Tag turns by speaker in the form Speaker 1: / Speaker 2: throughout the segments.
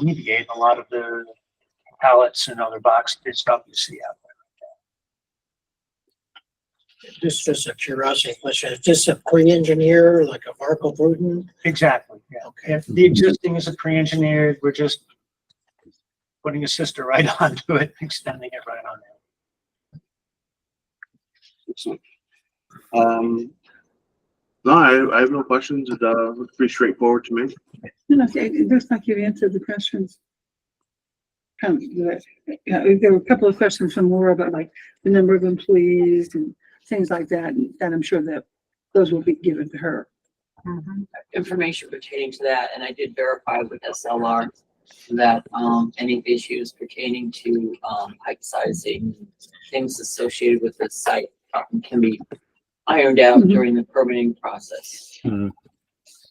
Speaker 1: alleviate a lot of the pallets and other boxes and stuff you see out
Speaker 2: Just as a curiosity question, is this a pre-engineer, like a Marco Bruton?
Speaker 1: there. Exactly, yeah.
Speaker 2: Okay,
Speaker 1: If the existing is a pre-engineered, we're just putting a sister right onto it, extending it right on there.
Speaker 3: Excellent. Um, no, I, I have no questions. It, uh, looks pretty straightforward to me.
Speaker 4: No, no, it it looks like you've answered the questions. Um, the- yeah, there were a couple of questions from Laura about like the number of employees and things like that, and and I'm sure that those will be given to her.
Speaker 5: information pertaining to that, and I did verify with SLR that, um, any issues pertaining to, um, height sizing, things associated with the site um, can be ironed out
Speaker 4: Mhm.
Speaker 5: during the permitting process
Speaker 6: Mhm.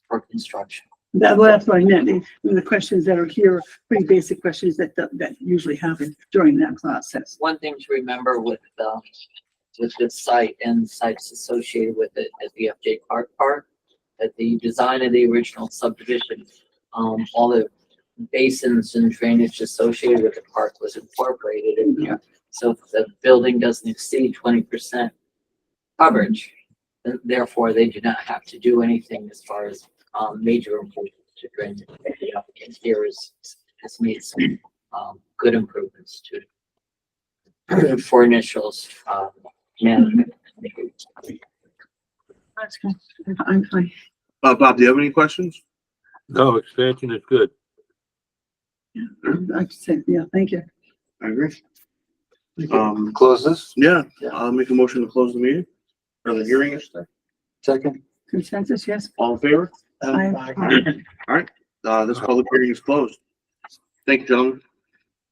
Speaker 5: for construction.
Speaker 4: That, well, that's what I meant, and the questions that are here, are pretty basic questions that, that- that usually happen during that process.
Speaker 5: One thing to remember with, um, with this site and sites associated with it at the FJ Clark Park, that the design of the original subdivision, um, all the basins and drainage associated with the park was incorporated in there. So the building doesn't exceed twenty percent coverage. and Therefore, they do not have to do anything as far as, um, major improvements to drainage. The applicant here is, has made some, um, good improvements to for initials, um, management.
Speaker 4: That's good. I'm fine.
Speaker 3: Uh, Bob, do you have any questions?
Speaker 6: No, expansion is good.
Speaker 4: I said, yeah, thank you.
Speaker 3: I agree. Um,
Speaker 7: Close this,
Speaker 3: yeah,
Speaker 7: Yeah.
Speaker 3: I'll make a motion to close the meeting or the hearing, I should say.
Speaker 7: second.
Speaker 4: Consensus, yes?
Speaker 3: All in favor?
Speaker 4: I-
Speaker 2: Um, I-
Speaker 3: Uh, this public hearing is closed. Thank you, gentlemen.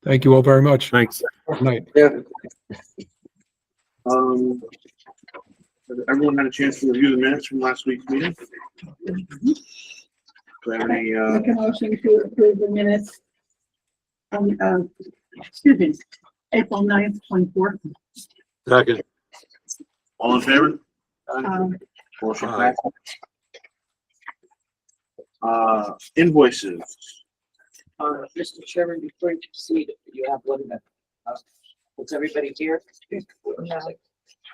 Speaker 8: Thank you all very much.
Speaker 6: Thanks.
Speaker 8: Good night.
Speaker 7: Yeah.
Speaker 3: Um, has everyone had a chance to review the minutes from last week's meeting? Do I have any, uh,
Speaker 4: Make a motion to approve the minutes. Um, uh, excuse me, April ninth, twenty-fourth.
Speaker 6: Second,
Speaker 3: all in favor?
Speaker 4: Um,
Speaker 3: Motion
Speaker 6: Aye.
Speaker 3: passed. Uh, invoices.
Speaker 5: Uh, Mr. Chairman, before you proceed, you have one minute. Uh, Was everybody here?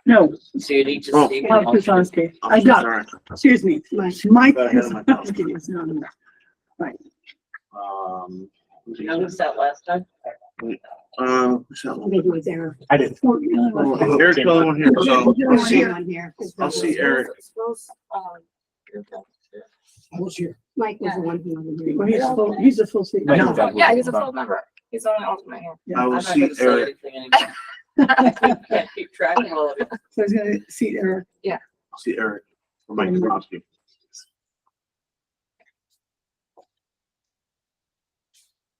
Speaker 4: no,
Speaker 5: So you need to
Speaker 3: Oh.
Speaker 5: see.
Speaker 4: Bob Kozlowski. I
Speaker 3: I'm so
Speaker 4: got,
Speaker 3: sorry.
Speaker 4: excuse me, my, Mike
Speaker 3: Got ahead of myself.
Speaker 4: Kozlowski is not on that.
Speaker 3: Um.
Speaker 5: You noticed that last time?
Speaker 3: Uh, who's that one?
Speaker 9: Maybe it was Eric.
Speaker 1: I didn't.
Speaker 4: Oh, you know what?
Speaker 3: Oh, Eric's the only one here, so.
Speaker 4: Yeah,
Speaker 9: There
Speaker 3: I'll
Speaker 9: was
Speaker 3: see-
Speaker 9: no one here. 'cause
Speaker 3: I'll see Eric.
Speaker 9: Mike was the one who was here.
Speaker 4: Well, he's a full, he's a full seat.
Speaker 1: Right.
Speaker 4: No,
Speaker 10: Yeah, he's a full member. He's only alternate here.
Speaker 3: I
Speaker 5: I'm
Speaker 3: will
Speaker 5: not
Speaker 3: see
Speaker 5: gonna say
Speaker 3: Eric.
Speaker 5: anything anymore. Can't keep track of all of it.
Speaker 4: So he's gonna seat Eric.
Speaker 3: I'll see Eric. Or Mike
Speaker 5: Mm-hmm.
Speaker 3: Kozlowski.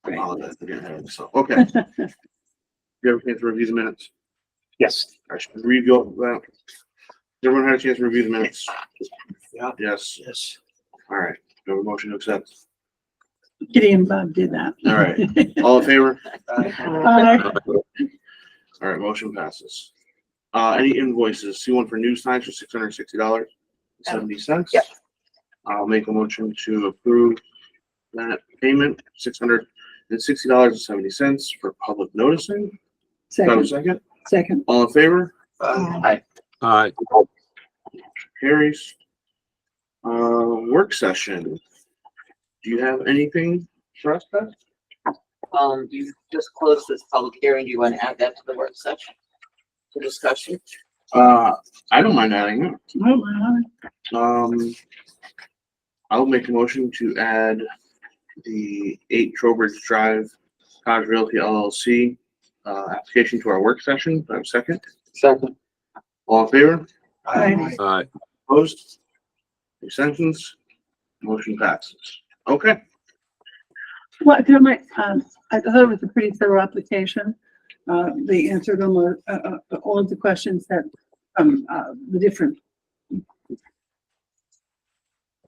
Speaker 3: I apologize for getting ahead of myself. Okay. You have a chance to review the minutes.
Speaker 1: Yes.
Speaker 3: I should review that. Everyone had a chance to review the minutes. Yeah. Yes.
Speaker 2: Yes.
Speaker 3: All right. Do I have a motion to accept?
Speaker 4: Kitty and Bob did that.
Speaker 3: All right. All in favor?
Speaker 4: Uh,
Speaker 3: All right, motion passes. Uh, any invoices? See one for news signs for six hundred sixty dollars seventy cents?
Speaker 10: Yep.
Speaker 3: I'll make a motion to approve that payment, six hundred and sixty dollars and seventy cents for public noticing. Do I have a
Speaker 4: Second,
Speaker 3: second?
Speaker 4: second.
Speaker 3: All in favor?
Speaker 9: Uh,
Speaker 6: aye.
Speaker 3: Carries. Uh, work session. Do you have anything for us, Beth?
Speaker 5: Um, you just closed this public hearing. Do you want to add that to the work session? For discussion?
Speaker 3: Uh, I don't mind adding it.
Speaker 4: Oh, my.
Speaker 3: Um, I'll make a motion to add the eight Trowbridge Drive, Cottage Realty LLC, uh, application to our work session. Do I have a second?
Speaker 7: Second.
Speaker 3: All in favor?
Speaker 4: Aye.
Speaker 6: Aye.
Speaker 3: Opposed? Extensions? Motion passes. Okay,
Speaker 4: Well, there might, um, I thought it was a pretty thorough application. Uh, they answered almost, uh, uh, all of the questions that, um, uh, the different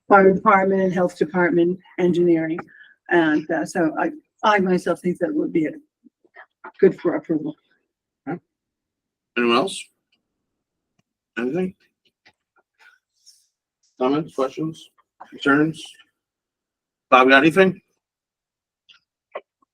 Speaker 4: fire department, health department, engineering. And, uh, so I, I myself think that would be good for approval.
Speaker 3: anyone else? Anything? Comments, questions, concerns? Bob, got anything?